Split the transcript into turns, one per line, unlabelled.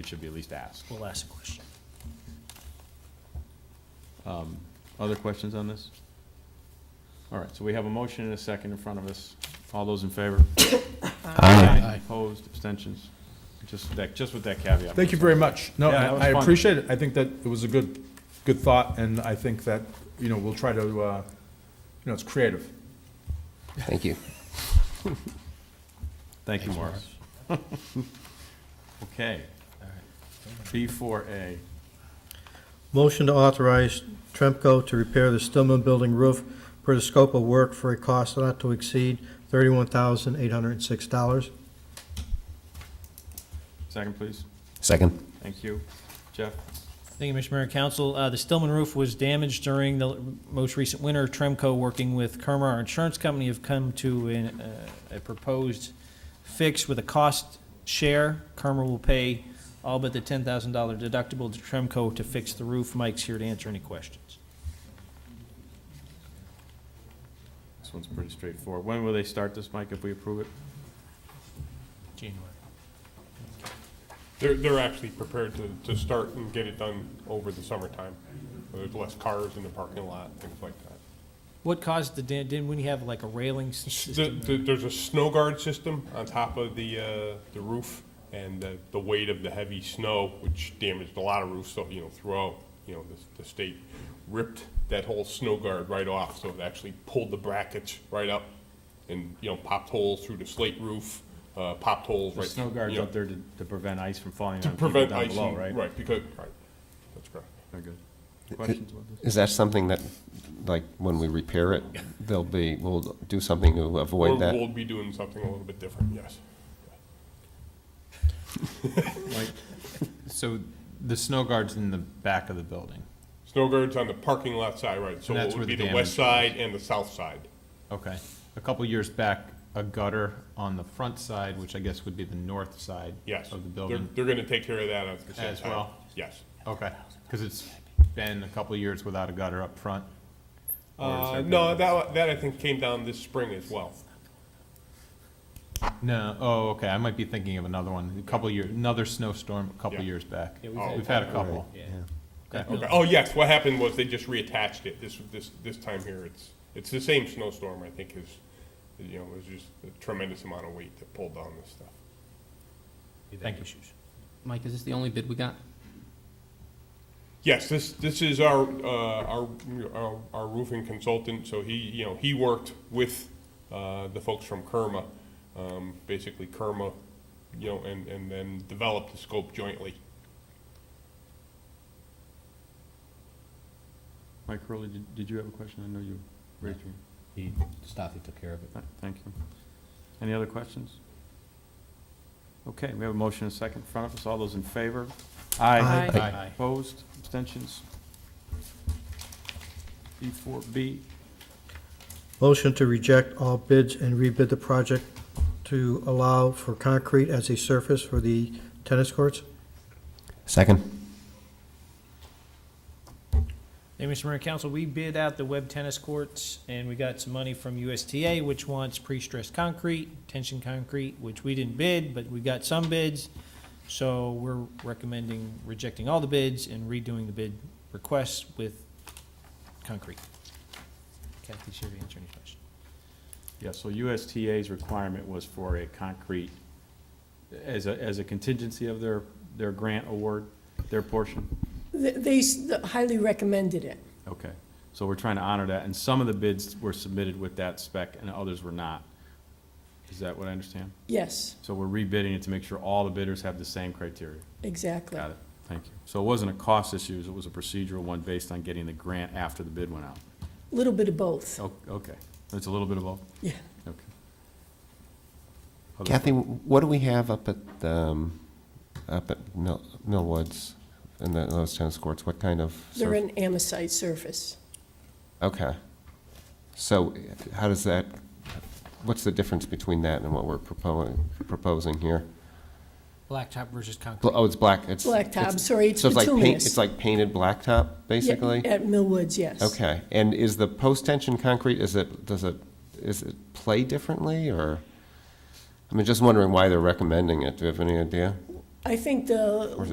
It should be at least asked.
We'll ask a question.
Um, Other questions on this? All right, so we have a motion and a second in front of us. All those in favor? Aye. Opposed, abstentions? Just that, just with that caveat.
Thank you very much. No,
Yeah, that was
I I
fun.
appreciate it. I think that it was a good, good thought, and I think that, you know, we'll try to, uh, you know, it's creative.
Thank you.
Thank you, Morris. Okay. B4A,
Motion to authorize Tremco to repair the Stillman Building roof per the scope of work for a cost not to exceed thirty-one thousand eight hundred and six dollars.
second, please.
Second.
Thank you. Jeff?
Thank you, Mr. Mayor and Council. Uh, The Stillman roof was damaged during the most recent winter. Tremco, working with Kerma, our insurance company, have come to an, uh, a proposed fix with a cost share. Kerma will pay all but the $10,000 deductible to Tremco to fix the roof. Mike's here to answer any questions.
This one's pretty straightforward. When will they start this, Mike, if we approve it?
January.
They're, they're actually prepared to, to start and get it done over the summertime. There's less cars in the parking lot, things like that.
What caused the, dam- didn't we have like a railing s-
The-
system?
the- There's a snow guard system on top of the, uh, the roof, and the, the weight of the heavy snow, which damaged a lot of roofs, so, you know, throughout, you know, the, the state ripped that whole snow guard right off, so it actually pulled the brackets right up and, you know, popped holes through the slate roof, uh, popped holes
The
right.
snow guard's
you know,
up there to to prevent ice from falling
To
on people
prevent
down
ice,
below, right?
right, because, right, that's correct.
Very good. Questions about this?
Is that something that, like, when we repair it, there'll be, we'll do something to
We'll,
avoid
we'll
that?
be doing something a little bit different, yes.
So the snow guard's in the back of the building.
Snow guards on the parking lot side, right, so
And that's
it would
where
be
the
the west
damage
side and the south side.
Okay. A couple years back, a gutter on the front side, which I guess would be the north side
Yes.
of the
They're-
building.
They're gonna take care of that at the same time.
As well?
Yes.
Okay, because it's been a couple years without a gutter up front. Or is
Uh,
there
no,
gutter?
that, that I think came down this spring as well.
No, oh, okay, I might be thinking of another one, a couple years, another snowstorm a couple
Yeah.
years back.
Yeah, we've had-
We've had a couple.
Okay. Oh, yes, what happened was they just reattached it this, this, this time here. It's, it's the same snowstorm, I think, is, you know, it was just a tremendous amount of weight that pulled down this stuff.
Thank you.
Mike, is this the only bid we got?
Yes, this, this is our, uh, our, our- our roofing consultant, so he, you know, he worked with, uh, the folks from Kerma. Um, basically Kerma, you know, and, and then developed the scope jointly.
Mike Curley, did, did you have a question? I know you raised your,
He, Staffy took care of it.
Th- thank you. Any other questions? Okay, we have a motion and a second in front of us. All those in favor?
Aye.
Aye.
Aye.
Opposed, abstentions? E four B,
Motion to reject all bids and rebid the project to allow for concrete as a surface for the tennis courts.
Second.
Thank you, Mr. Mayor and Council. We bid out the web tennis courts, and we got some money from USTA, which wants pre-stressed concrete, tension concrete, which we didn't bid, but we got some bids. So we're recommending rejecting all the bids and redoing the bid requests with concrete. Kathy's here to answer any questions.
yeah, so USTA's requirement was for a concrete, as a, as a contingency of their, their grant award, their portion?
Th- They s- highly recommended it.
Okay, so we're trying to honor that, and some of the bids were submitted with that spec and others were not. Is that what I understand?
Yes,
So we're rebidding it to make sure all the bidders have the same criteria.
exactly.
Got it, thank you. So it wasn't a cost issue, it was a procedural one based on getting the grant after the bid went out.
A Little bit of
Oh.
both,
O- Okay, it's a little bit of both,
yeah.
okay. Other-
Kathy, what do we have up at, um, up at Mill, Millwoods and the- those tennis courts? What kind of?
They're
surf-
an amosite surface.
Okay. So how does that, what's the difference between that and what we're proposing, proposing here?
Blacktop versus
Bl-
concrete.
Oh, it's black, it's.
Blacktop,
it's-
sorry, it's
So it's like paint,
bituminous.
it's like painted blacktop,
Yeah,
basically?
At Millwoods, yes.
Okay, and is the post-tension concrete, is it, does it, is it play differently, or? I mean, just wondering why they're recommending it, do you have any idea?
I think the